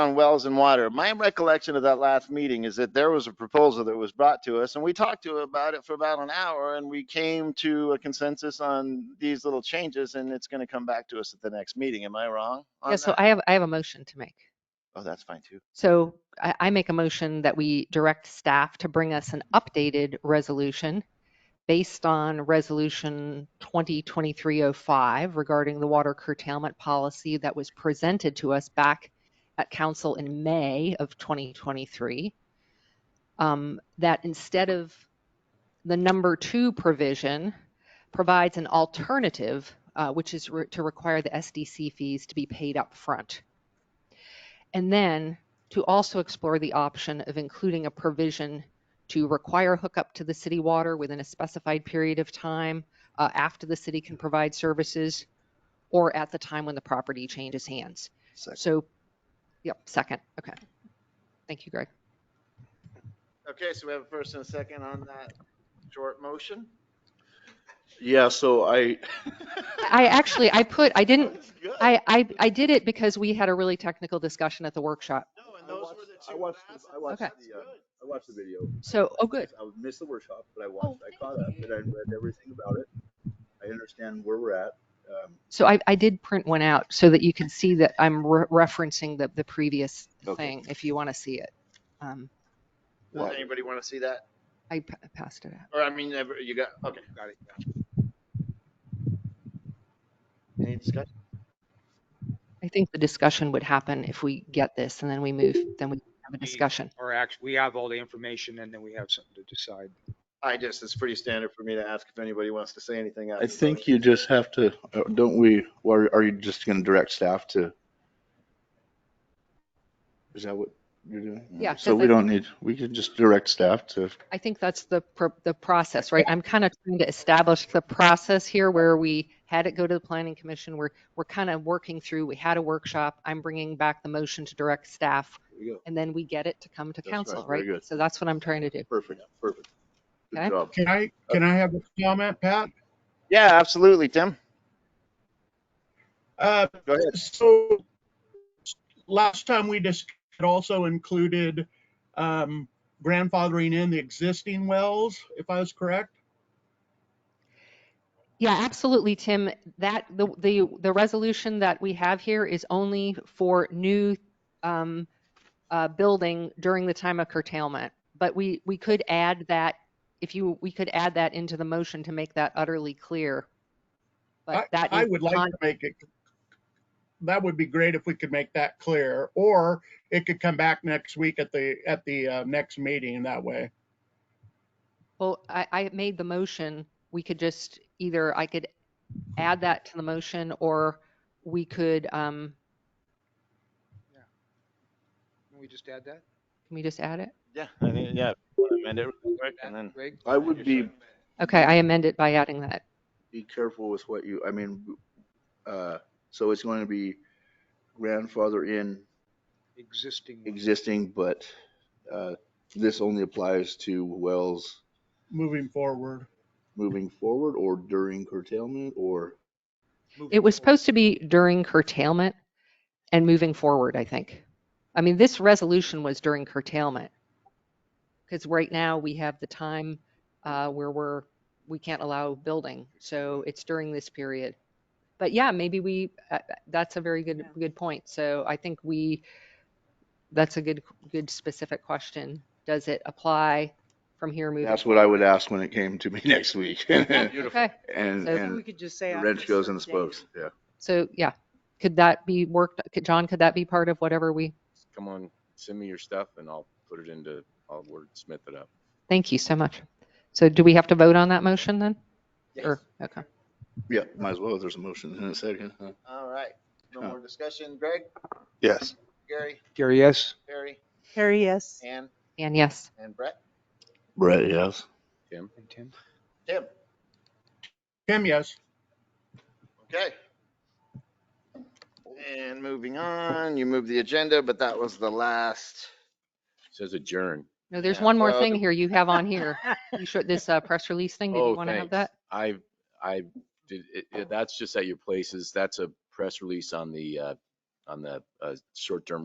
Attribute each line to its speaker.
Speaker 1: on wells and water. My recollection of that last meeting is that there was a proposal that was brought to us and we talked to about it for about an hour and we came to a consensus on these little changes and it's gonna come back to us at the next meeting. Am I wrong on
Speaker 2: Yeah, so
Speaker 1: that?
Speaker 2: I have, I have a motion to make.
Speaker 1: Oh, that's fine too.
Speaker 2: So I, I make a motion that we direct staff to bring us an updated resolution based on Resolution 2023-05 regarding the water curtailment policy that was presented to us back at council in May of 2023. Um, That instead of the number two provision provides an alternative, uh, which is re- to require the SDC fees to be paid up front, And then to also explore the option of including a provision to require hookup to the city water within a specified period of time uh, after the city can provide services or at the time when the property changes hands.
Speaker 1: Second.
Speaker 2: So, yep, second. Okay. Thank you, Greg.
Speaker 1: Okay, so we have a first and a second on that short motion?
Speaker 3: Yeah, so I,
Speaker 2: I actually, I put, I didn't,
Speaker 1: That's good.
Speaker 2: Mm, I, I, I did it because we had a really technical discussion at the workshop.
Speaker 1: No, and
Speaker 3: I
Speaker 1: those
Speaker 3: watched-
Speaker 1: were the
Speaker 3: I
Speaker 1: two
Speaker 3: watched the-
Speaker 1: facets.
Speaker 3: I watched
Speaker 1: That's
Speaker 3: the, uh,
Speaker 1: good.
Speaker 3: I watched the video.
Speaker 2: So, oh, good.
Speaker 3: I missed the workshop, but I
Speaker 2: Oh,
Speaker 3: watched, I caught up and I read everything about it. I understand where we're at. Um,
Speaker 2: So I, I did print one out so that you can see that I'm re- referencing the, the previous
Speaker 3: Okay.
Speaker 2: thing if you want to see it. Um,
Speaker 1: Does anybody want to see that?
Speaker 2: I p- passed it out.
Speaker 1: Or I mean, ever- you got, okay, got it. got it. Any discussion?
Speaker 2: I think the discussion would happen if we get this and then we move, then we have a discussion.
Speaker 4: Or act, we have all the information and then we have something to decide.
Speaker 1: I just, it's pretty standard for me to ask if anybody wants to say anything. after
Speaker 3: I
Speaker 1: the
Speaker 3: think
Speaker 1: motion.
Speaker 3: you just have to, uh, don't we, or are you just gonna direct staff to? Is that what you're doing?
Speaker 2: Yeah,
Speaker 3: So
Speaker 2: 'cause
Speaker 3: we
Speaker 2: I-
Speaker 3: don't need, we can just direct staff to,
Speaker 2: I think that's the, pro- the process, right? I'm kind of trying to establish the process here where we had it go to the planning commission. We're, we're kind of working through, we had a workshop. I'm bringing back the motion to direct staff
Speaker 3: There you go.
Speaker 2: and then we get it to come to
Speaker 3: That's right,
Speaker 2: council,
Speaker 3: very
Speaker 2: right?
Speaker 3: good.
Speaker 2: So that's what I'm trying to do.
Speaker 3: perfect, perfect. Good
Speaker 2: Okay.
Speaker 3: job.
Speaker 5: Can I, can I have a comment, Pat?
Speaker 1: Yeah, absolutely, Tim.
Speaker 5: Uh,
Speaker 1: Go ahead.
Speaker 5: so last time we just it also included um, grandfathering in the existing wells, if I was correct.
Speaker 2: Yeah, absolutely, Tim. That, the, the, the resolution that we have here is only for new um, uh, building during the time of curtailment. But we, we could add that, if you, we could add that into the motion to make that utterly clear.
Speaker 5: I,
Speaker 2: But that
Speaker 5: I
Speaker 2: is
Speaker 5: would like
Speaker 2: on-
Speaker 5: to make it. That would be great if we could make that clear, or it could come back next week at the at the uh, next meeting that way.
Speaker 2: Well, I, I made the motion. We could just either, I could add that to the motion or we could, um,
Speaker 4: Can we just add that?
Speaker 2: can we just add it?
Speaker 1: Yeah, I think, yeah. amend it real quick and then-
Speaker 4: Greg?
Speaker 3: I would be
Speaker 2: Okay, I amend it by adding that.
Speaker 3: be careful with what you, I mean, uh, so it's going to be grandfather in
Speaker 4: Existing.
Speaker 3: existing, but, uh, this only applies to wells
Speaker 5: Moving forward,
Speaker 3: moving forward or during curtailment or,
Speaker 2: It was supposed to be during curtailment and moving forward, I think. I mean, this resolution was during curtailment. Because right now we have the time uh, where we're, we can't allow building. So it's during this period. But yeah, maybe we, uh, that's a very good, good point. So I think we, that's a good, good specific question. Does it apply from here moving?
Speaker 3: that's what I would ask when it came to me next week. And,
Speaker 2: Okay, So-
Speaker 6: Maybe we
Speaker 3: and
Speaker 6: could just say.
Speaker 3: the
Speaker 6: after
Speaker 3: wrench goes in the
Speaker 6: certain date.
Speaker 3: spokes, yeah.
Speaker 2: so yeah, could that be worked, could- John, could that be part of whatever we?
Speaker 7: come on, send me your stuff and I'll put it into, I'll wordsmith it up.
Speaker 2: Thank you so much. So do we have to vote on that motion then? Or- Okay.
Speaker 3: Yeah, might as well, if there's a motion in a second. huh?
Speaker 1: All right, no more discussion. Greg,
Speaker 3: Yes.
Speaker 1: Gary,
Speaker 4: Gary, yes?
Speaker 1: Harry,
Speaker 6: Harry, yes.
Speaker 1: Ann,
Speaker 2: And yes,
Speaker 1: and Brett,
Speaker 3: Brett, yes.
Speaker 4: And Tim?
Speaker 1: Tim.
Speaker 5: Tim, yes.
Speaker 1: Okay. And moving on, you moved the agenda, but that was the last.
Speaker 7: Says adjourn.
Speaker 2: no, there's
Speaker 1: Yeah,
Speaker 2: one more
Speaker 1: well-
Speaker 2: thing here you have on here. You should, this uh, press release thing, did
Speaker 7: Oh,
Speaker 2: you want to have
Speaker 7: thanks.
Speaker 2: that?
Speaker 7: I, I did, it- it, that's just at your places. That's a press release on the, uh, on the, uh, short-term